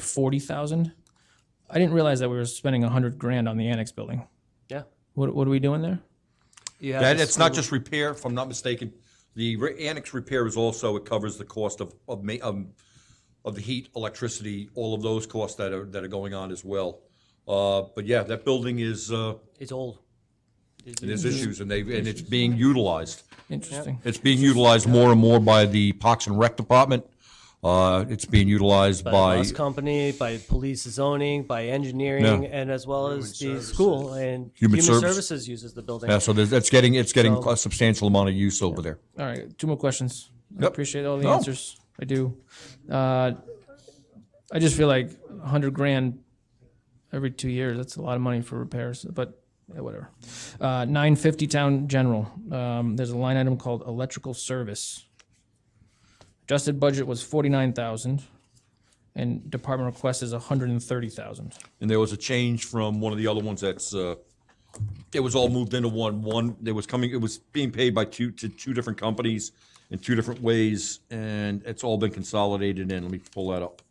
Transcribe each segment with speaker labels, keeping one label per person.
Speaker 1: forty thousand. I didn't realize that we were spending a hundred grand on the annex building.
Speaker 2: Yeah.
Speaker 1: What, what are we doing there?
Speaker 2: You have
Speaker 3: That,
Speaker 2: the
Speaker 3: it's not
Speaker 2: school-
Speaker 3: just repair, if I'm not mistaken. The re- annex repair is also, it covers the cost of, of ma- um, of the heat, electricity, all of those costs that are, that are going on as well. Uh, but yeah, that building is, uh,
Speaker 2: It's old.
Speaker 3: there's issues and they, and it's being utilized.
Speaker 1: Interesting.
Speaker 3: It's being utilized more and more by the Parks and Rec Department. Uh, it's being utilized
Speaker 2: by,
Speaker 3: by,
Speaker 2: bus company, by police zoning, by engineering,
Speaker 3: No.
Speaker 2: and as well as the school and
Speaker 3: Human service-
Speaker 2: services. uses the building.
Speaker 3: yeah, uh, so there's, it's getting, it's getting
Speaker 2: So-
Speaker 3: a substantial amount of use over there.
Speaker 1: All right, two more questions. I
Speaker 3: Yep.
Speaker 1: appreciate all the
Speaker 3: No.
Speaker 1: answers. I do. Uh, I just feel like a hundred grand every two years, that's a lot of money for repairs, but yeah, whatever. Uh, nine fifty town general, um, there's a line item called electrical service. Adjusted budget was forty-nine thousand and department request is a hundred and thirty thousand.
Speaker 3: And there was a change from one of the other ones that's, uh, it was all moved into one, one, there was coming, it was being paid by two, to two different companies in two different ways, and it's all been consolidated in. Let me pull that up.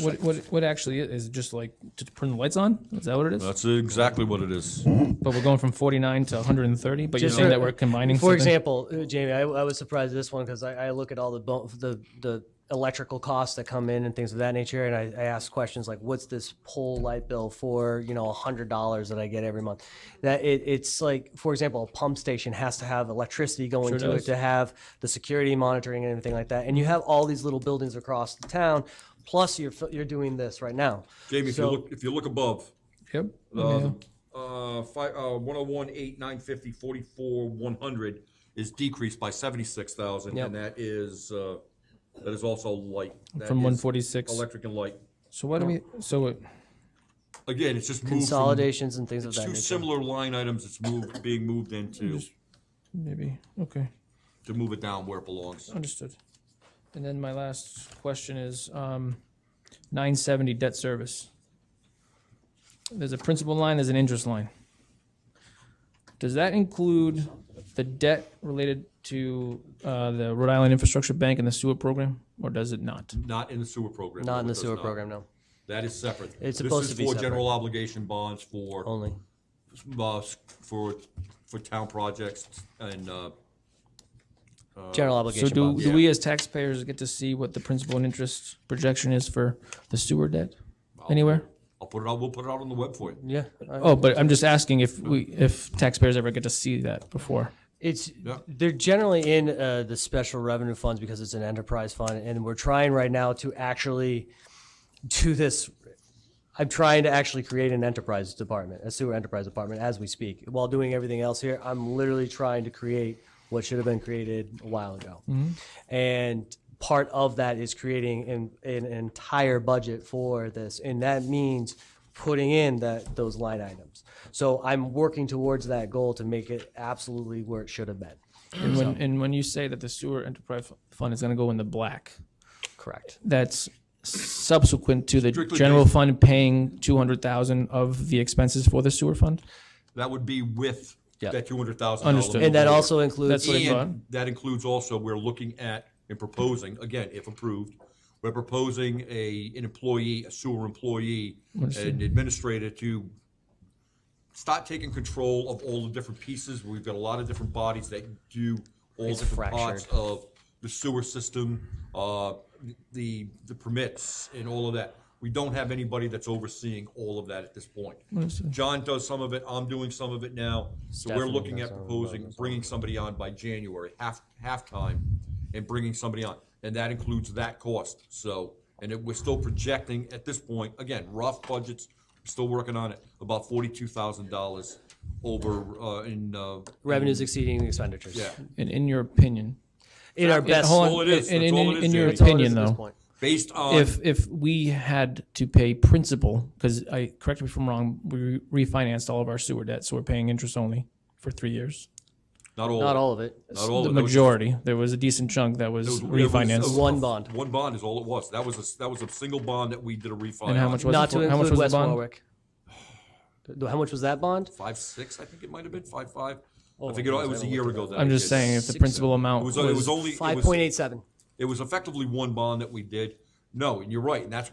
Speaker 1: What, what, what actually is, is it just like to turn the lights on? Is that what it is?
Speaker 3: That's exactly what it is.
Speaker 1: But we're going from forty-nine to hundred and thirty, but you're
Speaker 2: Just
Speaker 1: saying
Speaker 2: for-
Speaker 1: that we're combining
Speaker 2: For
Speaker 1: something?
Speaker 2: example, uh, Jamie, I, I was surprised at this one because I, I look at all the, bo- the the electrical costs that come in and things of that nature, and I, I ask questions like, "What's this pole light bill for?" You know, a hundred dollars that I get every month. That it, it's like, for example, a pump station has to have electricity going to
Speaker 1: does.
Speaker 2: it to have the security monitoring and everything like that, and you have all these little buildings across the town. Plus, you're fi- you're doing this right now.
Speaker 3: Jamie, if you
Speaker 2: So-
Speaker 3: look, if you look above,
Speaker 1: Yep.
Speaker 3: uh, uh, five, uh, one oh one, eight, nine fifty, forty-four, one hundred is decreased by seventy-six thousand, and that is, uh, that is also light. That
Speaker 1: From
Speaker 3: is
Speaker 1: 146.
Speaker 3: Electric and light.
Speaker 1: So what do we, so it-
Speaker 3: Again, it's just moved from
Speaker 2: Consolidations and things of that
Speaker 3: two
Speaker 2: nature.
Speaker 3: similar line items that's moved, being moved into,
Speaker 1: maybe, okay,
Speaker 3: to move it down where it belongs.
Speaker 1: understood. And then my last question is, um, nine seventy debt service. There's a principal line, there's an interest line. Does that include the debt related to, uh, the Rhode Island Infrastructure Bank and the sewer program, or does it not?
Speaker 3: Not in the sewer program.
Speaker 2: Not
Speaker 3: no,
Speaker 2: in
Speaker 3: it
Speaker 2: the
Speaker 3: does
Speaker 2: sewer
Speaker 3: not.
Speaker 2: program, no.
Speaker 3: That is separate.
Speaker 2: It's supposed to be
Speaker 3: This is for
Speaker 2: separate. Oh.
Speaker 3: general obligation bonds for,
Speaker 2: Only.
Speaker 3: uh, for, for town projects and, uh,
Speaker 2: General
Speaker 1: So
Speaker 2: obligation
Speaker 1: do,
Speaker 2: bonds.
Speaker 1: do we as taxpayers get to see what the principal and interest projection is for the sewer debt anywhere?
Speaker 3: I'll put it out, we'll put it out on the web for you.
Speaker 2: Yeah. I-
Speaker 1: Oh, but I'm just asking if we, if taxpayers ever get to see that before.
Speaker 2: It's, they're generally in uh, the special revenue funds because it's an enterprise fund, and we're trying right now to actually do this. I'm trying to actually create an enterprise department, a sewer enterprise department, as we speak. While doing everything else here, I'm literally trying to create what should have been created a while ago. And part of that is creating an, an entire budget for this, and that means putting in that those line items. So I'm working towards that goal to make it absolutely where it should have been.
Speaker 1: And when, and when you say that the sewer enterprise fund is gonna go in the black,
Speaker 2: Correct.
Speaker 1: that's subsequent to the
Speaker 3: Strictly
Speaker 1: general fund paying two hundred thousand of the expenses for the sewer fund?
Speaker 3: That would be with
Speaker 2: Yeah.
Speaker 3: that two hundred thousand.
Speaker 1: Understood.
Speaker 2: And that also includes
Speaker 1: That's what I thought.
Speaker 3: And that includes also, we're looking at and proposing, again, if approved, we're proposing a, an employee, a sewer employee, an administrator to start taking control of all the different pieces. We've got a lot of different bodies that do all
Speaker 2: It's
Speaker 3: different parts of the sewer system, uh, the, the permits and all of that. We don't have anybody that's overseeing all of that at this point. John does some of it, I'm doing some of it now. So we're
Speaker 2: Stephanie
Speaker 3: looking
Speaker 2: does
Speaker 3: at
Speaker 2: some of it,
Speaker 3: proposing,
Speaker 2: that's all.
Speaker 3: bringing somebody on by January, half, halftime, and bringing somebody on. And that includes that cost, so, and it, we're still projecting at this point, again, rough budgets, still working on it, about forty-two thousand dollars over, uh, in, uh.
Speaker 2: revenues exceeding expenditures.
Speaker 3: Yeah,
Speaker 1: And in your opinion?
Speaker 2: In our
Speaker 1: Yeah,
Speaker 2: best.
Speaker 1: hold on.
Speaker 3: all it is.
Speaker 1: And
Speaker 3: That's
Speaker 1: in-
Speaker 3: all it is,
Speaker 1: In your
Speaker 3: Jamie.
Speaker 2: That's all it
Speaker 1: opinion,
Speaker 2: is at this
Speaker 1: though,
Speaker 2: point.
Speaker 3: based on,
Speaker 1: if, if we had to pay principal, because I, correct me if I'm wrong, we refinanced all of our sewer debt, so we're paying interest only for three years.
Speaker 3: not all.
Speaker 2: Not
Speaker 3: of it.
Speaker 2: all of it.
Speaker 3: Not all.
Speaker 1: The
Speaker 3: of it. That was-
Speaker 1: majority, there was a decent chunk that was
Speaker 3: that was- that was
Speaker 1: refinanced.
Speaker 3: a-
Speaker 2: One bond.
Speaker 3: One bond is all it was. That was a, that was a single bond that we did a refinance.
Speaker 1: And how much was it?
Speaker 2: Not to
Speaker 1: for- how much was
Speaker 2: include
Speaker 1: the
Speaker 2: West
Speaker 1: bond?
Speaker 2: Warwick. Th- How much was that bond?
Speaker 3: Five, six, I think it might have been, five, five. I
Speaker 1: Oh,
Speaker 2: my
Speaker 3: think it
Speaker 2: goodness,
Speaker 3: it was
Speaker 2: I
Speaker 3: a
Speaker 2: don't
Speaker 3: year
Speaker 2: look at
Speaker 3: ago that.
Speaker 1: I'm
Speaker 3: I
Speaker 1: just
Speaker 3: did.
Speaker 1: saying, if the principal amount
Speaker 3: It was,
Speaker 1: was.
Speaker 3: it was only, it
Speaker 2: Five
Speaker 3: was,
Speaker 2: point eight seven.
Speaker 3: it was effectively one bond that we did. No, and you're right, and that's